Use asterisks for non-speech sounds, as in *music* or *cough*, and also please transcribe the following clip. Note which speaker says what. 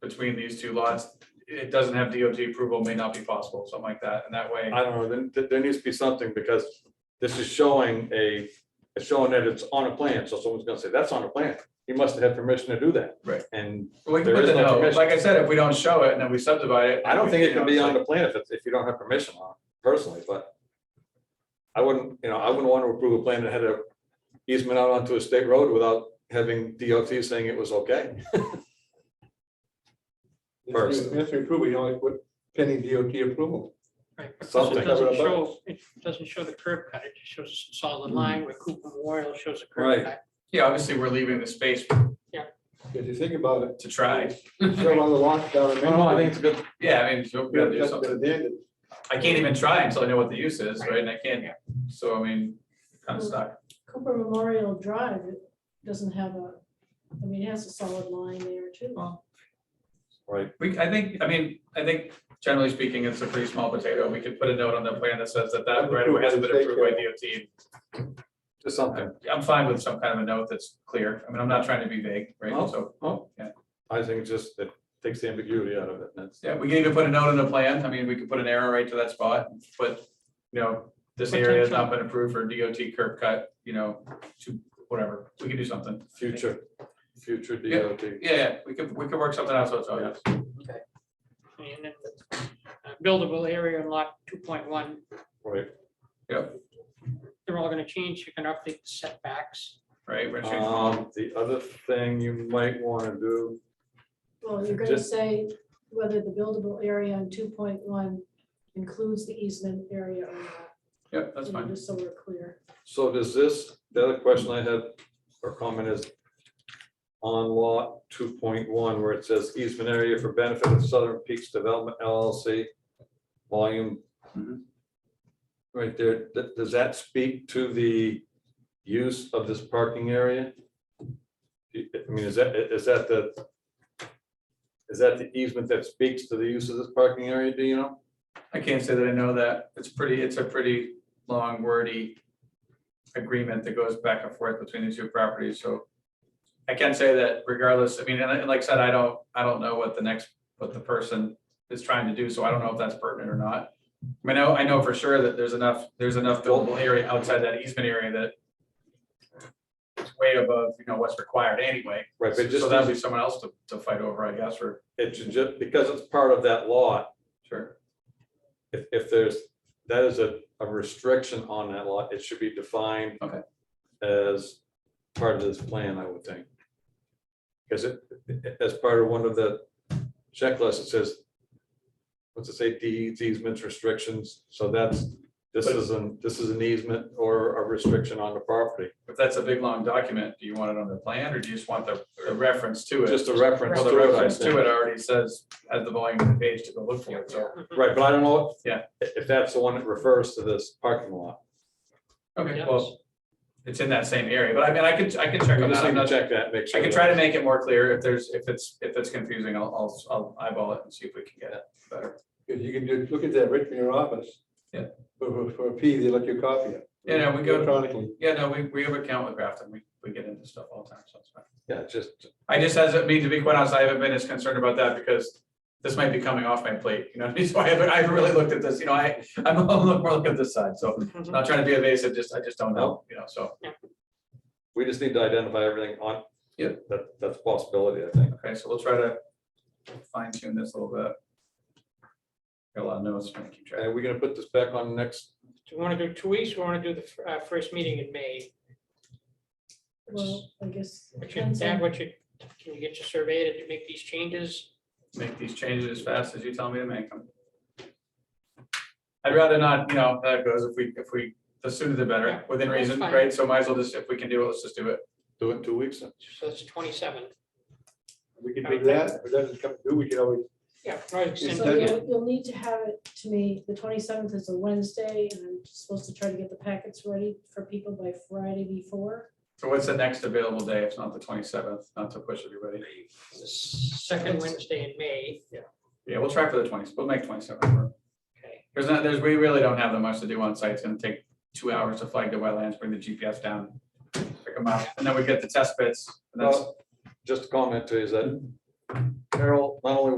Speaker 1: between these two lots, it doesn't have DOT approval, may not be possible, something like that, and that way.
Speaker 2: I don't know, then, th- there needs to be something, because this is showing a, it's showing that it's on a plan, so someone's gonna say, that's on a plan. He must have had permission to do that.
Speaker 1: Right.
Speaker 2: And
Speaker 1: We can
Speaker 2: There
Speaker 1: put
Speaker 2: is
Speaker 1: the
Speaker 2: no
Speaker 1: no,
Speaker 2: permission.
Speaker 1: like I said, if we don't show it and then we subdivide it.
Speaker 2: I don't think it
Speaker 1: you know,
Speaker 2: can be
Speaker 1: it's
Speaker 2: on
Speaker 1: like-
Speaker 2: the plan if, it's- if you don't have permission on, it, personally, but I wouldn't, you know, I wouldn't want to approve a plan that had a easement out onto a state road without having DOT saying it was okay. First.
Speaker 3: If we- if we approve, we only put pending DOT approval.
Speaker 4: Right, because
Speaker 2: Something.
Speaker 4: it doesn't show, it doesn't show the curb cut, it just shows a solid line where Cooper Memorial shows a
Speaker 2: Hmm. Right.
Speaker 4: curb cut.
Speaker 1: Yeah, obviously, we're leaving the space
Speaker 3: If you think about it,
Speaker 1: to try.
Speaker 3: show on the lot down
Speaker 2: *laughs*
Speaker 3: in.
Speaker 2: No, no, Oh, I think it's a good,
Speaker 1: Yeah, I mean, so we gotta do
Speaker 3: That's
Speaker 1: something.
Speaker 3: been abandoned.
Speaker 1: I can't even try until I know what the use is, right? And I can't, so I mean, kind of stuck.
Speaker 5: Cooper Memorial Drive it doesn't have a, I mean, it has a solid line there too.
Speaker 2: right,
Speaker 1: We, I think, I mean, I think generally speaking, it's a pretty small potato. We could put a note on the plan that says that that right away has been approved by DOT.
Speaker 2: just something.
Speaker 1: I'm fine with some kind of a note that's clear. I mean, I'm not trying to be vague, right? So,
Speaker 2: Oh,
Speaker 1: Yeah.
Speaker 2: I think it's just, it takes the ambiguity out of it, and that's.
Speaker 1: yeah, we can even put a note on the plan. I mean, we could put an arrow right to that spot, but, you know, this area has not been approved for DOT curb cut, you know, to whatever. We can do something.
Speaker 2: Future, future
Speaker 1: Yeah.
Speaker 2: DOT.
Speaker 1: Yeah, yeah, we could, we could work something out, so it's, obvious.
Speaker 4: And then the uh, buildable area in lot two point one,
Speaker 2: Right,
Speaker 4: they're all gonna change, you can update the setbacks.
Speaker 1: right? We're changing-
Speaker 2: um, the other thing you might wanna do,
Speaker 5: Well, you're gonna
Speaker 2: Just-
Speaker 5: say whether the buildable area on two point one includes the easement area or not.
Speaker 1: Yep, that's
Speaker 5: you know,
Speaker 1: fine.
Speaker 5: Just so we're clear.
Speaker 2: so does this, the other question I had, or comment is. On lot two point one, where it says easement area for benefit of Southern Peaks Development LLC, volume.
Speaker 1: Mhm.
Speaker 2: Right there, th- does that speak to the use of this parking area? I I mean, is that, is that the? Is that the easement that speaks to the use of this parking area, do you know?
Speaker 1: I can't say that I know that. It's pretty, it's a pretty long wordy agreement that goes back and forth between the two properties, so. I can say that regardless, I mean, and I- and like I said, I don't, I don't know what the next, what the person is trying to do, so I don't know if that's pertinent or not. I mean, I, know- I know for sure that there's enough, there's enough buildable area outside that easement area that it's way above, you know, what's required anyway.
Speaker 2: Right, but just-
Speaker 1: So that'd be someone else to, to fight over, I guess, or,
Speaker 2: It should just, because it's part of that lot,
Speaker 1: sure,
Speaker 2: if, if there's, that is a, a restriction on that lot, it should be defined.
Speaker 1: Okay.
Speaker 2: As part of this plan, I would think. Because it, it- as part of one of the checklists, it says, what's it say, deeds, easements, restrictions, so that's, this
Speaker 1: But-
Speaker 2: is an, this is an easement or a restriction on the property,
Speaker 1: if that's a big, long document, do you want it on the plan, or do you just want the a reference to it?
Speaker 2: just a reference
Speaker 1: Well,
Speaker 2: to
Speaker 1: the
Speaker 2: it, I
Speaker 1: reference
Speaker 2: think.
Speaker 1: to it already says, has the volume of the page to go look for it, so,
Speaker 2: Right, but I don't know.
Speaker 1: Yeah.
Speaker 2: i- If that's the one that refers to this parking lot,
Speaker 1: okay, well, it's in that same area, but I mean, I could, I could check
Speaker 2: I'm
Speaker 1: on
Speaker 2: just
Speaker 1: that, I'm
Speaker 2: going to
Speaker 1: not,
Speaker 2: check that, make sure.
Speaker 1: I could
Speaker 2: that-
Speaker 1: try to make it more clear if there's, if it's, if it's confusing, I'll, I'll, I'll eyeball it and see if we can get it better.
Speaker 3: Because you can do, look at that right from your office.
Speaker 1: Yeah.
Speaker 3: For, for- for a P, they let you copy it.
Speaker 1: Yeah, no, we go-
Speaker 3: Electronically.
Speaker 1: Yeah, no, we, we have an account with Grafton, we, we get into stuff all the time, so it's fine.
Speaker 2: Yeah, just,
Speaker 1: I just, as, I mean, to be quite honest, I haven't been as concerned about that because this might be coming off my plate, you know, what I mean? *laughs* so I haven't, I haven't really looked at this, you know, I, I'm *laughs* a little more looking at this side, so
Speaker 4: Mm-hmm.
Speaker 1: not trying to be evasive, just, I just don't know, you know, so.
Speaker 2: we just need to identify everything on.
Speaker 1: Yeah.
Speaker 2: That, that's a possibility, I think.
Speaker 1: Okay, so we'll try to fine tune this a little bit. Got a lot of notes, trying to keep track.
Speaker 2: Are we gonna put this back on next?
Speaker 4: Do you wanna do two weeks, or wanna do the fir- uh, first meeting in May?
Speaker 5: Well, I guess. it
Speaker 4: What you,
Speaker 5: depends
Speaker 4: Dan,
Speaker 5: on-
Speaker 4: what you, can you get your survey to make these changes?
Speaker 1: Make these changes as fast as you tell me to make them. I'd rather not, you know, that goes if we, if we, the sooner the
Speaker 4: Yeah,
Speaker 1: better, within
Speaker 4: that's
Speaker 1: reason,
Speaker 4: fine.
Speaker 1: right? So might as well just, if we can do it, let's just do it.
Speaker 2: Do it in two weeks?
Speaker 4: So it's twenty-seven.
Speaker 3: We can do that, if it doesn't come through, we can always,
Speaker 4: Yeah. right, extend
Speaker 5: So
Speaker 4: it.
Speaker 5: you'll, you'll need to have it to me, the twenty-seventh is a Wednesday, and I'm supposed to try to get the packets ready for people by Friday before.
Speaker 1: So what's the next available day? It's not the twenty-seventh, not to push everybody.
Speaker 4: The Second Wednesday in May. Yeah.
Speaker 1: Yeah, we'll try for the twenties. We'll make twenty-seventh work.
Speaker 4: Okay,
Speaker 1: There's not, there's, we really don't have that much to do on site. It's gonna take two hours to flag the wetlands, bring the GPS down, pick them up, and then we get the test bits. and that's- Mm-hmm.
Speaker 2: Well, Just a comment to you is that Carol, not